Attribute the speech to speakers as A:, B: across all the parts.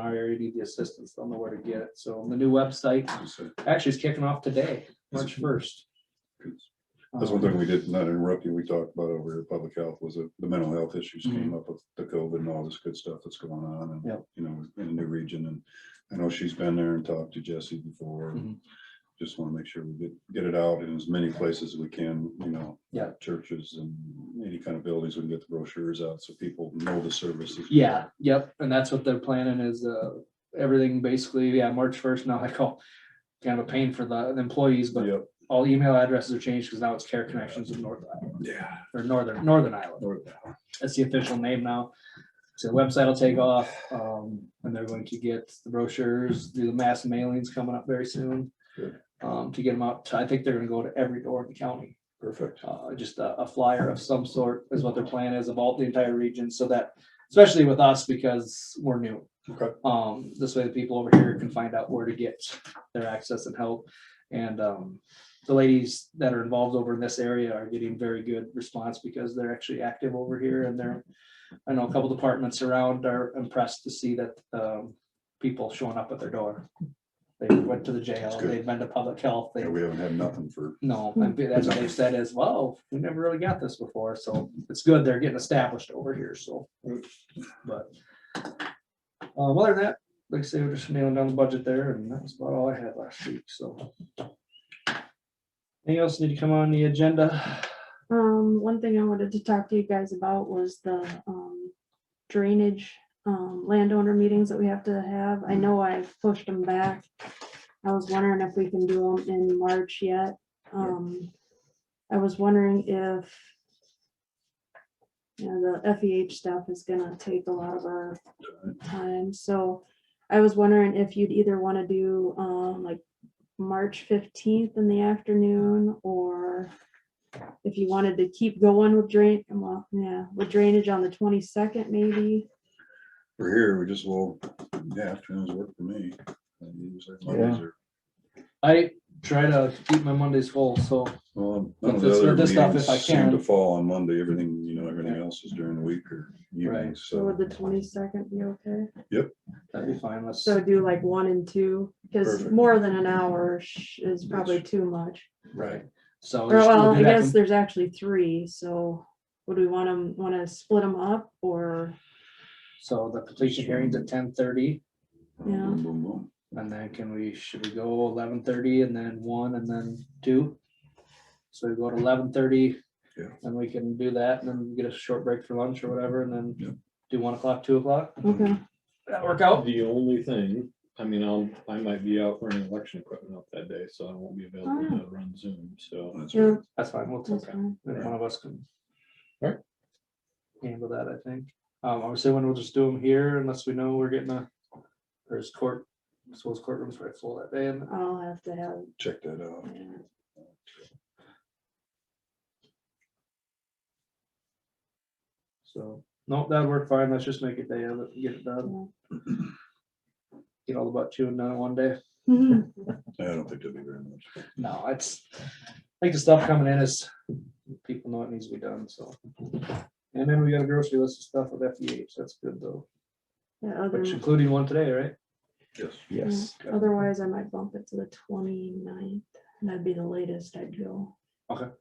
A: our area need the assistance, they'll know where to get it. So the new website actually is kicking off today, March first. Um,
B: That's one thing we did, not interrupt you, we talked about over here, public health was that the mental health issues came up with the COVID and all this good stuff that's going on and,
A: Mm-hmm. Yep.
B: you know, in the new region and I know she's been there and talked to Jesse before. and
A: Mm-hmm.
B: Just want to make sure we get, get it out in as many places as we can, you know.
A: Yeah.
B: Churches and any kind of buildings, we can get the brochures out so people know the services.
A: Yeah, yep, and that's what they're planning is, uh, everything basically, yeah, March first, now I call. Kind of a pain for the the employees, but
B: Yep.
A: all email addresses are changed because now it's Care Connections of North Iowa,
B: Yeah.
A: or Northern, Northern Iowa. That's the official name now. So the website will take off, um, and they're going to get the brochures, do the mass mailings coming up very soon.
B: Good.
A: Um, to get them out, to- I think they're gonna go to every door in the county,
B: Perfect.
A: uh, just a, a flyer of some sort is what their plan is of all the entire region, so that. Especially with us because we're new,
B: Okay.
A: um, this way the people over here can find out where to get their access and help. And, um, the ladies that are involved over in this area are getting very good response because they're actually active over here and they're. I know a couple departments around are impressed to see that, um, people showing up at their door. They went to the jail,
B: That's good.
A: they've been to public health, they
B: Yeah, we haven't had nothing for,
A: no, I think that's what they've said as well. We never really got this before, so it's good they're getting established over here, so. But. Uh, other than that, like I say, we're just nailing down the budget there and that was about all I had last week, so. Anything else need to come on the agenda?
C: Um, one thing I wanted to talk to you guys about was the, um, drainage, um, landowner meetings that we have to have. I know I've pushed them back. I was wondering if we can do them in March yet. Um, I was wondering if you know, the FEH stuff is gonna take a lot of our time, so I was wondering if you'd either wanna do, um, like March fifteenth in the afternoon, or if you wanted to keep going with drain, well, yeah, with drainage on the twenty-second maybe.
B: we're here, we just will, yeah, afternoons work for me. And usually Mondays are-
A: I try to keep my Mondays full, so
B: Well,
A: But
B: none of the
A: this-
B: other
A: this stuff,
B: meetings
A: if I
B: seem to
A: can.
B: fall on Monday, everything, you know, everything else is during the week or evening,
A: Right.
C: So
B: so.
C: would the twenty-second be okay?
A: that'd be fine. Let's,
C: So do like one and two, because
B: Perfect.
C: more than an hour sh- is probably too much.
A: right, so.
C: Or
A: just- we'll
C: well,
A: do
C: I
A: that
C: guess
A: from-
C: there's actually three, so would we want them, want to split them up or,
A: So the completion hearings at ten thirty
C: Yeah.
B: Boom, boom, boom.
A: and then can we, should we go eleven thirty and then one and then two? So we go to eleven thirty.
B: Yeah.
A: And we can do that and then get a short break for lunch or whatever and
B: Yeah.
A: then do one o'clock, two o'clock.
C: okay,
A: That work out?
D: The only thing, I mean, I'll, I might be out running election equipment up that day, so I won't be available to run Zoom, so.
B: That's
C: yeah,
B: right.
A: That's fine. We'll take
C: that's
A: that.
C: fine.
A: Then one of us can.
D: Alright.
A: Handle that, I think. Um, obviously, when we'll just do them here unless we know we're getting a, there's court, I suppose courtrooms right full that day and
C: I'll have to have,
B: Check that out.
C: yeah.
A: so. Nope, that'd work fine. Let's just make a day of it, and get it done. Get all the butt chewing done in one day.
C: Mhm.
B: I don't think that'd be very much.
A: No, it's, I think the stuff coming in is, people know it needs to be done, so. And then we got a grocery list of stuff with FEH, that's good though,
C: Yeah,
A: which
C: other-
A: including one today, right?
B: Yes.
C: Yes. Otherwise, I might bump it to the 29th, and that'd be the latest I'd go.
A: Whatever,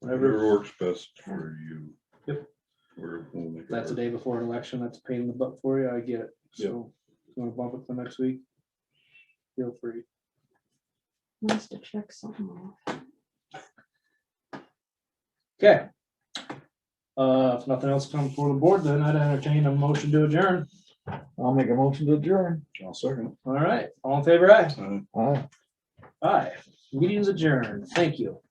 B: Whatever works best for you.
A: Yep.
B: We're, we'll make. it
A: that's a
B: work.
A: day before an election, that's a pain in the butt for you, I get it,
B: Yep.
A: so. if you Wanna bump it to next week? Feel free.
C: Wants to check something off.
A: Okay. Uh, if nothing else comes for the board, then I'd entertain a motion to adjourn.
E: I'll make a motion to adjourn.
B: I'll second.
A: All right, all in favor, aye?
B: Uh,
E: Aye.
A: Aye. Meeting's adjourned, thank you.